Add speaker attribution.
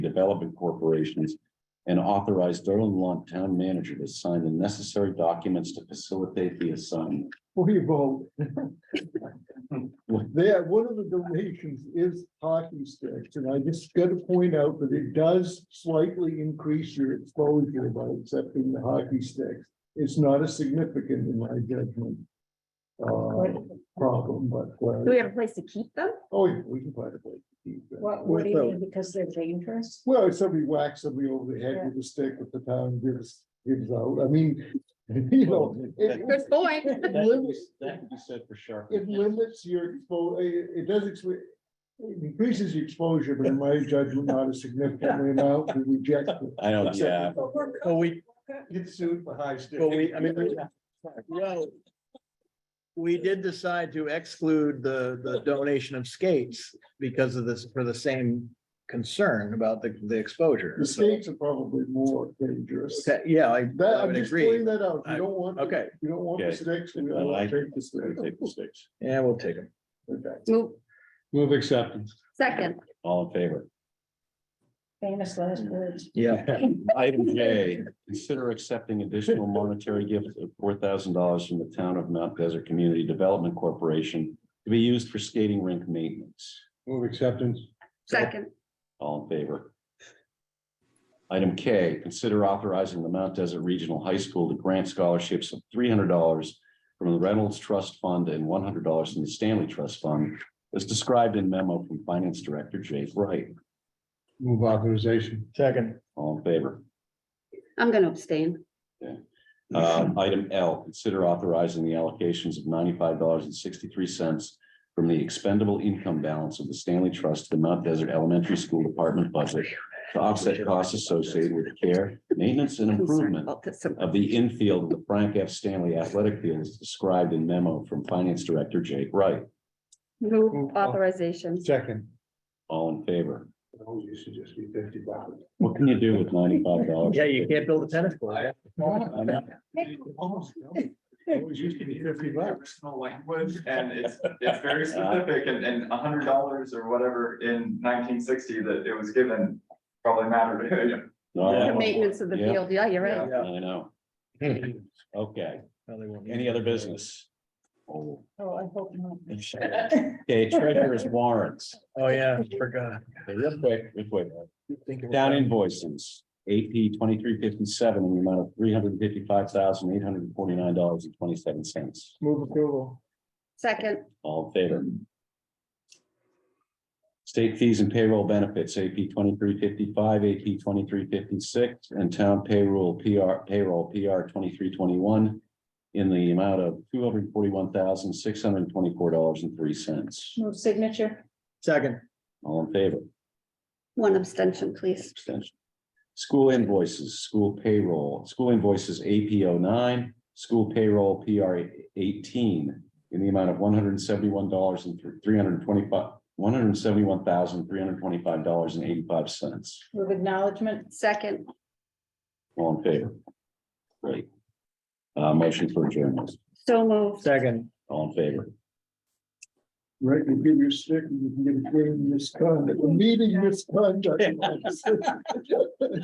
Speaker 1: development corporations and authorize Sterling Lawn Town Manager to sign the necessary documents to facilitate the assignment.
Speaker 2: We vote. There, one of the donations is hockey sticks, and I just gotta point out that it does slightly increase your exposure by accepting the hockey sticks. It's not a significant, in my judgment. Uh, problem, but,
Speaker 3: Do we
Speaker 2: uh,
Speaker 3: have a place to keep them?
Speaker 2: oh, yeah, we can find a way to keep that.
Speaker 4: What, what do you
Speaker 2: Without-
Speaker 4: mean, because they're dangerous?
Speaker 2: Well, if somebody whacks somebody over the head with a stick with the town gives, gives out, I mean, you know. it-
Speaker 3: Good point.
Speaker 2: it
Speaker 1: That can be-
Speaker 2: limits-
Speaker 1: that can be said for sure.
Speaker 2: It limits your, expo- it, it does, expo- it increases your exposure, but in my judgment, not a significant amount, we reject it.
Speaker 1: I don't, yeah,
Speaker 5: But we,
Speaker 2: Get sued for high stakes.
Speaker 5: but we, I mean, we- well. We did decide to exclude the, the donation of skates because of this, for the same concern about the, the exposure.
Speaker 2: The states are probably more dangerous.
Speaker 5: Okay, Yeah, I,
Speaker 2: That,
Speaker 5: I
Speaker 2: I'm
Speaker 5: would
Speaker 2: just
Speaker 5: agree.
Speaker 2: pointing that out, you
Speaker 5: I-
Speaker 2: don't want,
Speaker 5: Okay,
Speaker 2: you don't want the
Speaker 1: Okay.
Speaker 2: stakes, we
Speaker 1: I
Speaker 2: don't
Speaker 1: like-
Speaker 2: want to take the stakes.
Speaker 1: take the sticks.
Speaker 5: yeah, we'll take them.
Speaker 2: Okay.
Speaker 3: Move,
Speaker 2: Move acceptance.
Speaker 3: second,
Speaker 1: All in favor?
Speaker 4: Famous last words.
Speaker 5: Yeah,
Speaker 1: Item J, consider accepting additional monetary gifts of four thousand dollars from the town of Mount Desert Community Development Corporation to be used for skating rink maintenance.
Speaker 2: Move acceptance.
Speaker 3: second,
Speaker 1: All in favor? Item K, consider authorizing the Mount Desert Regional High School to grant scholarships of three hundred dollars from the Reynolds Trust Fund and one hundred dollars from the Stanley Trust Fund, as described in memo from Finance Director Jay Wright.
Speaker 2: Move authorization.
Speaker 5: second,
Speaker 1: All in favor?
Speaker 3: I'm gonna abstain.
Speaker 1: Um, item L, consider authorizing the allocations of ninety-five dollars and sixty-three cents from the expendable income balance of the Stanley Trust to the Mount Desert Elementary School Department budget to offset costs associated with care, maintenance, and
Speaker 3: Concerned
Speaker 1: improvement
Speaker 3: about this.
Speaker 1: of the infield of the Frank F. Stanley Athletic Field as described in memo from Finance Director Jake Wright.
Speaker 3: Move authorization.
Speaker 2: Second.
Speaker 1: All in favor?
Speaker 2: Oh, you should just be fifty bucks.
Speaker 1: What can you do with ninety-five dollars?
Speaker 5: yeah, you can't build a tennis court.
Speaker 2: Almost, Always used to be fifty bucks.
Speaker 6: Personal language and it's, it's very specific and, and a hundred dollars or whatever in nineteen sixty that it was given probably mattered to him.
Speaker 3: The maintenance of the
Speaker 1: Yeah.
Speaker 3: field, yeah, you're right.
Speaker 1: I know. Okay, any other business? Oh.
Speaker 4: Oh, I hope not.
Speaker 1: Okay, treasurer's warrants.
Speaker 5: Oh, yeah, forgot.
Speaker 1: Okay, Real quick, real quick. Down invoices, AP twenty-three fifty-seven, in the amount of three hundred fifty-five thousand, eight hundred forty-nine dollars and twenty-seven cents.
Speaker 5: Move approval.
Speaker 3: Second,
Speaker 1: All in favor? State fees and payroll benefits, AP twenty-three fifty-five, AP twenty-three fifty-six, and town payroll, PR, payroll, PR twenty-three twenty-one in the amount of two hundred forty-one thousand, six hundred twenty-four dollars and three cents.
Speaker 4: Move signature,
Speaker 5: Second,
Speaker 1: All in favor?
Speaker 3: one abstention, please.
Speaker 1: Abstention. School invoices, school payroll, school invoices AP 9 school payroll PR eighteen in the amount of one hundred and seventy-one dollars and three hundred and twenty-five, one hundred and seventy-one thousand, three hundred and twenty-five dollars and eighty-five cents.
Speaker 4: move acknowledgement,
Speaker 3: Second,
Speaker 1: All in favor? Great. Uh, motion for adjournment,
Speaker 3: so moved.
Speaker 5: second.
Speaker 1: all in favor?
Speaker 2: Right, you give your stick, and you can get a grade in misconduct, meeting misconduct.